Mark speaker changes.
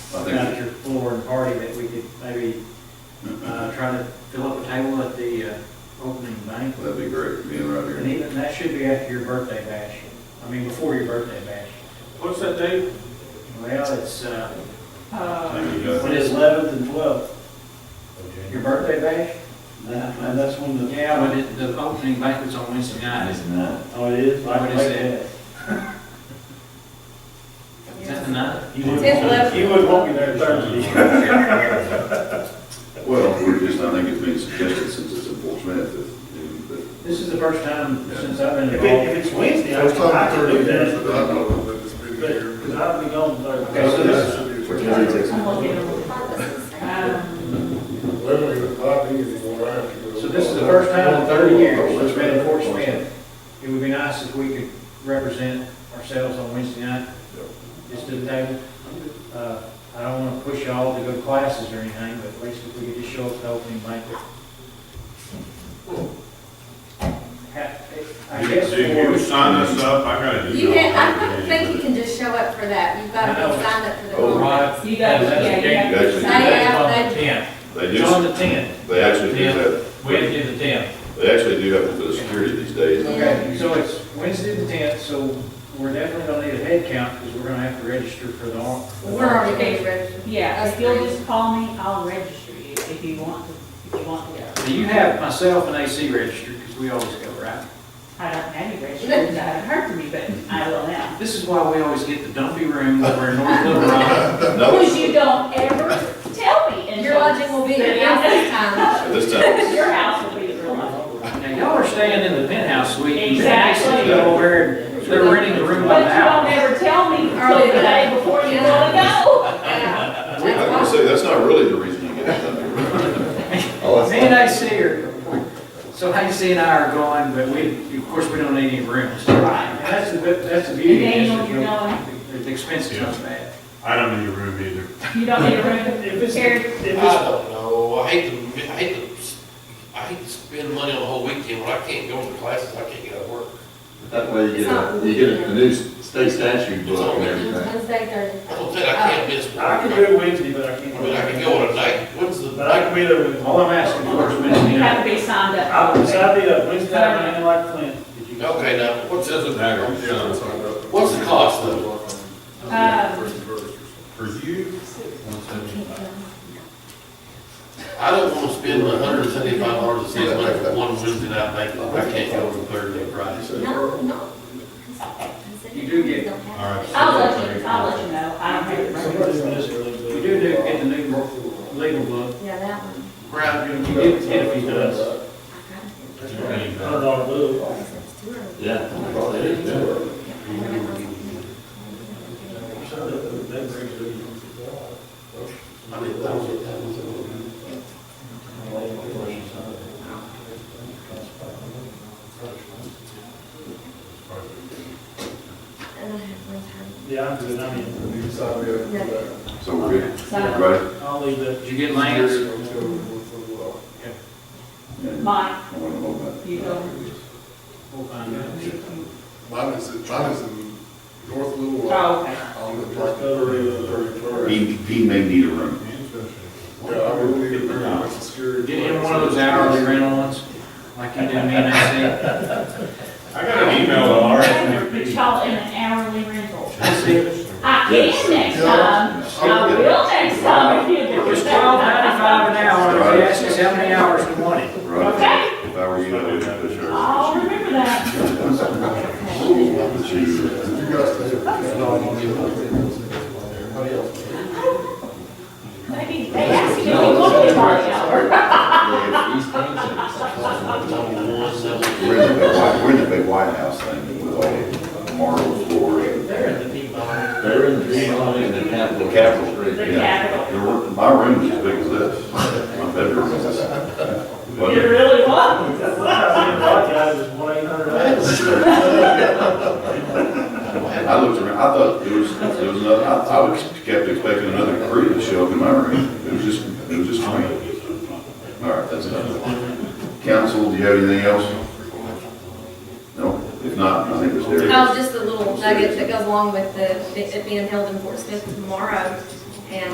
Speaker 1: I think-
Speaker 2: about your floor and party, that we could maybe, uh, try to fill up a table at the, uh, opening banquet.
Speaker 1: That'd be great, being right
Speaker 2: And
Speaker 1: here.
Speaker 2: even, that should be after your birthday bash, I mean, before your birthday bash.
Speaker 3: What's that date?
Speaker 2: Well, it's, uh,
Speaker 3: Uh,
Speaker 1: Thank you,
Speaker 2: When
Speaker 1: guys.
Speaker 2: is eleventh and twelfth? Your birthday bash?
Speaker 4: That, that's when the.
Speaker 2: Yeah, but it, the opening banquet's on Wednesday night.
Speaker 5: Isn't that?
Speaker 4: Oh, it is?
Speaker 2: What is
Speaker 4: Like
Speaker 2: it? Is that the night?
Speaker 4: that. You wouldn't
Speaker 6: It's
Speaker 4: want-
Speaker 6: left.
Speaker 4: You wouldn't want me there Thursday.
Speaker 1: Well, we're just, I think it's been suggested since it's in Fort Smith that, that.
Speaker 2: This is the first time since I've been
Speaker 4: If it,
Speaker 2: involved.
Speaker 4: if it's Wednesday, I
Speaker 7: First
Speaker 4: can, I
Speaker 7: time in
Speaker 4: can do
Speaker 7: thirty years
Speaker 4: that.
Speaker 7: that I know of that it's been
Speaker 4: But,
Speaker 7: here.
Speaker 4: cause I'll be gone Thursday.
Speaker 2: Okay, so this-
Speaker 7: Literally, it's not anymore, I have to go.
Speaker 2: So this is the first time in thirty years it's been in Fort Smith. It would be nice if we could represent ourselves on Wednesday night, just to the table. Uh, I don't wanna push y'all to go to classes or anything, but at least if we could just show up at the opening banquet. Ha- I guess.
Speaker 3: If you
Speaker 2: for-
Speaker 3: sign us up, I gotta do.
Speaker 6: You
Speaker 3: it
Speaker 6: can,
Speaker 3: all.
Speaker 6: I don't think you can just show up for that, you've got to be signed up for the
Speaker 1: Oh,
Speaker 6: conference.
Speaker 2: Right.
Speaker 8: You guys,
Speaker 2: That's
Speaker 8: yeah,
Speaker 2: the
Speaker 8: you have
Speaker 1: You guys can do
Speaker 8: to
Speaker 6: Sign
Speaker 8: decide.
Speaker 6: up, they-
Speaker 1: They
Speaker 2: It's on
Speaker 1: just,
Speaker 2: the tenth,
Speaker 1: they actually do
Speaker 2: Yeah. we have
Speaker 1: have,
Speaker 2: to do the tenth.
Speaker 1: they actually do have to put security these days.
Speaker 2: Okay, so it's Wednesday the tenth, so we're definitely gonna need a head count, because we're gonna have to register for the. all-
Speaker 6: we're already getting registered.
Speaker 8: Yeah,
Speaker 6: Us
Speaker 8: if you'll
Speaker 6: three.
Speaker 8: just call me, I'll register you if you want to, if you want to go.
Speaker 2: Do you have myself and AC registered, because we always go, right?
Speaker 8: I don't have any registration, I haven't heard from you, but I will now.
Speaker 2: This is why we always get the dumpy room over in North Little Rock.
Speaker 1: No,
Speaker 8: Because you don't ever tell me until.
Speaker 6: Your lodging will be here this time.
Speaker 1: at this time,
Speaker 8: Your house will be the real one.
Speaker 2: Now, y'all are staying in the penthouse suite. and
Speaker 8: Exactly.
Speaker 2: They're over there, they're renting the room
Speaker 8: But
Speaker 2: by
Speaker 8: you
Speaker 2: the hour.
Speaker 8: don't ever tell me until the day before you want to go.
Speaker 6: Yeah.
Speaker 1: I can say, that's not really the reason you get it done.
Speaker 2: Me and AC are, so AC and I are going, but we, of course, we don't need any rooms.
Speaker 8: Right.
Speaker 2: And that's the, bit- that's the beauty of this.
Speaker 8: Daniel, you're going,
Speaker 2: is The expense is not bad.
Speaker 3: I don't need a room either.
Speaker 8: you don't need a room.
Speaker 4: If it's,
Speaker 8: Here.
Speaker 4: if it's
Speaker 9: I don't know, I hate to, I hate to, I hate to spend money on a whole weekend when I can't go to classes, I can't get out of work.
Speaker 5: That way you get, a- you get a new state statute book and everything.
Speaker 6: Wednesday, Thursday.
Speaker 9: I don't think I can't miss work.
Speaker 4: I can do it Wednesday, but I can't.
Speaker 9: I mean, I can go on a night, when's the?
Speaker 4: But I can be there with,
Speaker 2: All I'm asking for is Wednesday
Speaker 8: You have
Speaker 2: night.
Speaker 8: to be signed
Speaker 4: I,
Speaker 8: up.
Speaker 4: will I'll be there Wednesday night, and like Clint.
Speaker 9: Okay, now, what's,
Speaker 3: Doesn't
Speaker 7: Yeah,
Speaker 3: matter.
Speaker 7: it's on the-
Speaker 9: what's the cost though?
Speaker 8: Um,
Speaker 3: For you,
Speaker 9: I don't wanna spend a hundred and seventy-five dollars a season for one Wednesday night, night, I can't go on Thursday, Friday.
Speaker 6: No, no.
Speaker 2: You do get-
Speaker 3: all right.
Speaker 8: I'll let you, I'll let you know, I don't have a room.
Speaker 4: Somebody's gonna miss it really good.
Speaker 2: We do do get the new legal book.
Speaker 6: Yeah, that one.
Speaker 9: Brad,
Speaker 2: You get get a few does.
Speaker 6: I
Speaker 4: That's right. Hundred dollar bill.
Speaker 6: got it. It's too early.
Speaker 5: Yeah. Well, there you go.
Speaker 6: Yeah, I haven't got something.
Speaker 9: I mean, that was, that was.
Speaker 6: And I have no time.
Speaker 4: Yeah, I'm good, I mean,
Speaker 7: You sign me up for that.
Speaker 1: So we're good, right?
Speaker 4: I'll leave that.
Speaker 2: Did you get Lance?
Speaker 8: Mike,
Speaker 1: I wanna know about it.
Speaker 8: you go.
Speaker 2: We'll find out.
Speaker 7: Mine is, in- mine is in North Little Rock.
Speaker 8: Oh, okay.
Speaker 7: On the property.
Speaker 1: He, he may need a room.
Speaker 7: Yeah, I really need a very much security.
Speaker 2: Get him one of those hourly rental ones, like you did me and I
Speaker 3: I got an email on
Speaker 8: Put
Speaker 3: RSVP.
Speaker 8: y'all in an hourly rental.
Speaker 2: said.
Speaker 8: I
Speaker 5: Yes.
Speaker 8: can next time, I will next time if you
Speaker 2: It
Speaker 8: do
Speaker 2: was
Speaker 8: it.
Speaker 2: twelve ninety-five an hour, and they asked us how many hours we wanted.
Speaker 1: Right. If I were you, I would push her.
Speaker 8: I'll remember that.
Speaker 1: But you-
Speaker 7: You guys stay here.
Speaker 8: Maybe they asked you if you wanted to party out.
Speaker 5: Yeah, East Kansas or something.
Speaker 1: We're in the big white, we're in the big White House thing with all the marble floor and
Speaker 5: They're in the green line in the capital.
Speaker 1: the Capitol.
Speaker 8: The
Speaker 1: yeah.
Speaker 8: capital.
Speaker 1: Your- My room is as big as this. My bedroom is this.
Speaker 8: It really was.
Speaker 4: That's what I said, one eight hundred.
Speaker 1: But I looked around, I thought there was, there was another, I, I was kept expecting another crew to show up in my room. It was just, it was just me. All right, that's enough. Council, do you have anything else? No? If not, I think it's there.
Speaker 6: Oh, just a little nugget that goes along with the, it being held in Fort Smith tomorrow.